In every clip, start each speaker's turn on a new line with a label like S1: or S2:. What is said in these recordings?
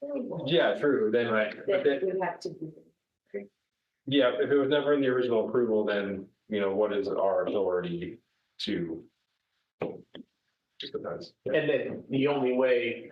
S1: people.
S2: Yeah, true, then, right, but
S1: That
S2: then,
S1: would have to be.
S2: yeah, if it was never in the original approval, then, you know, what is our authority to? Just depends.
S3: And then the only way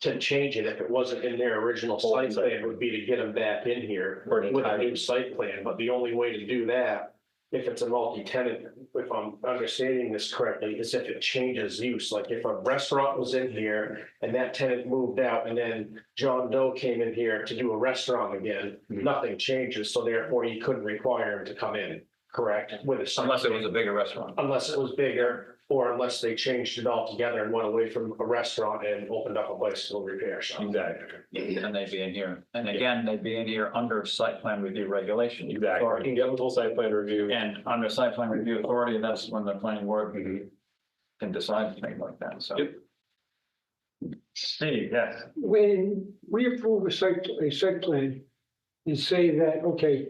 S3: to change it, if it wasn't in their original site plan, would be to get them back in here
S2: Or an
S3: with a new
S2: entire-
S3: site plan, but the only way to do that, if it's a multi-tenant, if I'm understanding this correctly, is if it changes use, like if a restaurant was in here and that tenant moved out and then John Doe came in here to do a restaurant again,
S4: Mm-hmm.
S2: Mhm.
S3: nothing changes, so therefore you couldn't require him to come in, correct? With a site
S4: unless it was
S3: plan.
S4: a bigger restaurant.
S3: Unless it was bigger, or unless they changed it altogether and went away from a restaurant and opened up a bicycle repair shop.
S2: Exactly,
S4: And they'd be in here. And again, they'd be in here under site plan review regulation.
S2: exactly, you have a full site plan review.
S4: And under site plan review authority, that's when the planning board
S2: Mhm.
S4: can decide things like that, so.
S2: Yep.
S4: Steve, yes.
S5: when we approve a site, a site plan and say that, okay,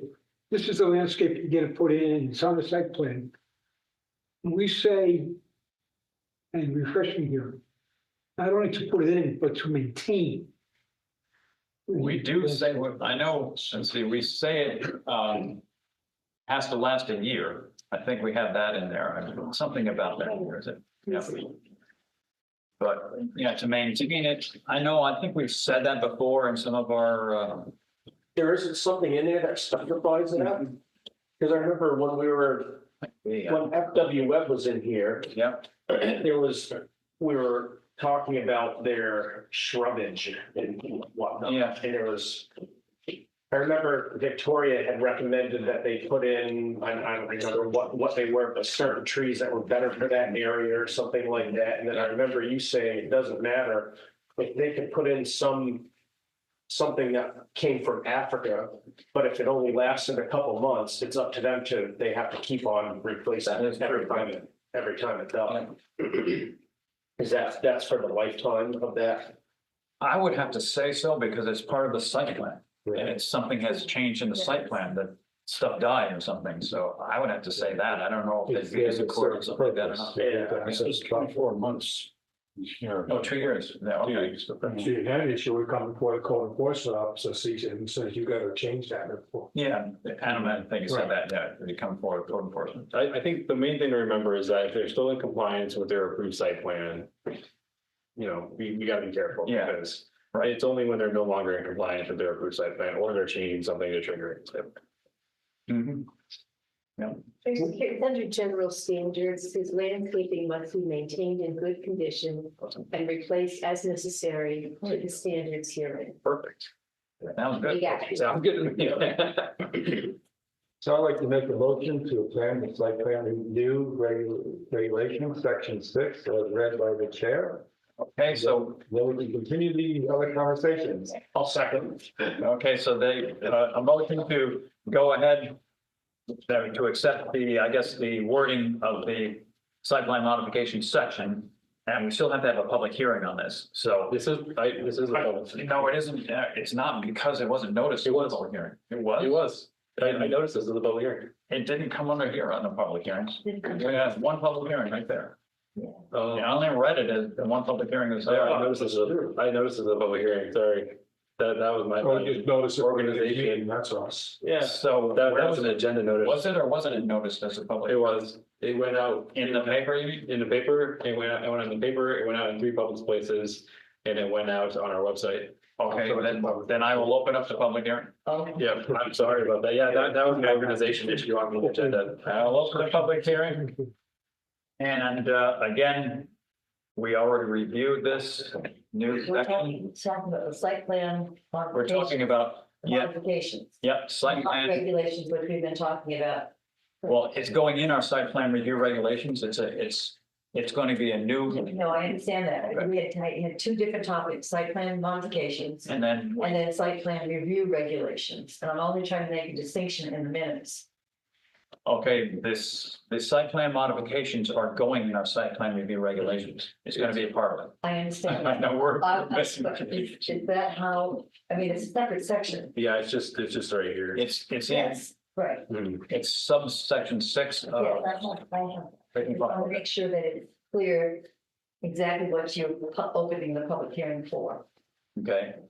S5: this is the landscape you're gonna put in, it's on the site plan. We say, and refresh me here, not only to put it in, but to maintain.
S4: We do say, what I know, since we say it, um, has to last a year. I think we have that in there, I- something about that, or is it? Yeah. But, yeah, to maintain it, I know, I think we've said that before in some of our, uh,
S3: There isn't something in there that specifies that? Because I remember when we were,
S4: yeah,
S3: when FW Webb was in here,
S4: yeah,
S3: there was, we were talking about their shrubbage and whatnot.
S4: Yeah.
S3: And there was, I remember Victoria had recommended that they put in, I I don't remember what, what they were, but certain trees that were better for that area or something like that. And then I remember you saying it doesn't matter, if they could put in some, something that came from Africa, but if it only lasted a couple months, it's up to them to, they have to keep on replacing
S4: That is
S3: it every
S4: true.
S3: time, it- every time it does. Is that, that's for the lifetime of that?
S4: I would have to say so because it's part of the site plan. And it's something has changed in the site plan that stuff died or something. So I would have to say that. I don't know if they use a court or something like that or not.
S3: Yeah.
S4: It's just
S6: about four months. Yeah.
S4: Oh, two years. Yeah, okay.
S6: So you had an issue, we come before the code enforcement officer sees it and says, you gotta change that report.
S4: Yeah, Adam, I think you said that, yeah, they come forward, with code enforcement.
S2: I, I think the main thing to remember is that if they're still in compliance with their approved site plan, you know, we, we gotta be careful.
S4: Yeah.
S2: Because right, it's only when they're no longer in compliance with their approved site plan or they're changing something to trigger it. So,
S4: Mhm.
S1: It's under general standards, says landscaping must be maintained in good condition and replaced as necessary to the standards herein.
S2: Perfect.
S4: That was
S1: We
S4: good.
S1: got it.
S2: Sounds good.
S6: So I'd like to make a motion to plan the site plan review regu- regulation, section six, as read by the chair.
S4: Okay, so,
S6: Then we can continue the other conversations.
S3: I'll second.
S4: okay, so they, uh, a motion to go ahead uh, to accept the, I guess, the wording of the site plan modification section. And we still have to have a public hearing on this, so.
S2: This is, I, this is. a-
S4: No, it isn't, uh, it's not because it wasn't noticed. It was. Public hearing. It
S2: It
S4: was?
S2: was. I, I noticed this is a public hearing.
S4: It didn't come under here on the public hearings. Yeah, one public hearing right there.
S2: Oh,
S4: Yeah, I only read it as the one public hearing was
S2: I
S4: there.
S2: Oh, I noticed this, is a- I noticed this is a public hearing, sorry. That, that was my.
S3: Oh,
S6: Or just notice. it.
S2: Organization.
S6: That's us.
S2: Yeah,
S4: So
S2: that,
S4: where
S2: that was
S4: was
S2: an
S4: it?
S2: agenda notice.
S4: Was it or wasn't it noticed as a
S2: It
S4: public?
S2: was, it went out.
S4: In the paper, you mean?
S2: in the paper, it went out, it went out in the paper, it went out in three public places, and it went out on our website.
S4: Okay, then, then I will open up the public hearing.
S2: Yeah, I'm sorry about that. Yeah, that, that was an organization issue on the agenda.
S4: I'll open the public hearing. And, uh, again, we already reviewed this new
S7: We're
S4: section.
S7: talking, talking about the site plan.
S4: We're talking about, yeah,
S7: Modifications.
S4: yeah, site
S7: Not
S4: plan.
S7: Regulations, which we've been talking about.
S4: Well, it's going in our site plan review regulations. It's a, it's, it's going to be a new,
S7: No, I understand
S4: Okay.
S7: that. We had, I had two different topics, site plan modifications
S4: and then
S7: and then site plan review regulations. And I'm only trying to make a distinction in the minutes.
S4: Okay, this, the site plan modifications are going in our site plan review regulations. It's gonna be a part of
S7: I
S4: it.
S7: understand.
S4: I
S7: that.
S4: know we're.
S7: Uh, but Is is that how, I mean, it's a separate section.
S2: Yeah, it's just, it's just right here.
S4: It's, it's, in-
S7: Yes, right.
S2: Hmm.
S4: it's subsection six
S7: Yes, I
S4: of.
S7: have, I have. I
S4: written
S7: want
S4: file.
S7: to make sure that it's clear exactly what you're pu- opening the public hearing for.
S4: Okay,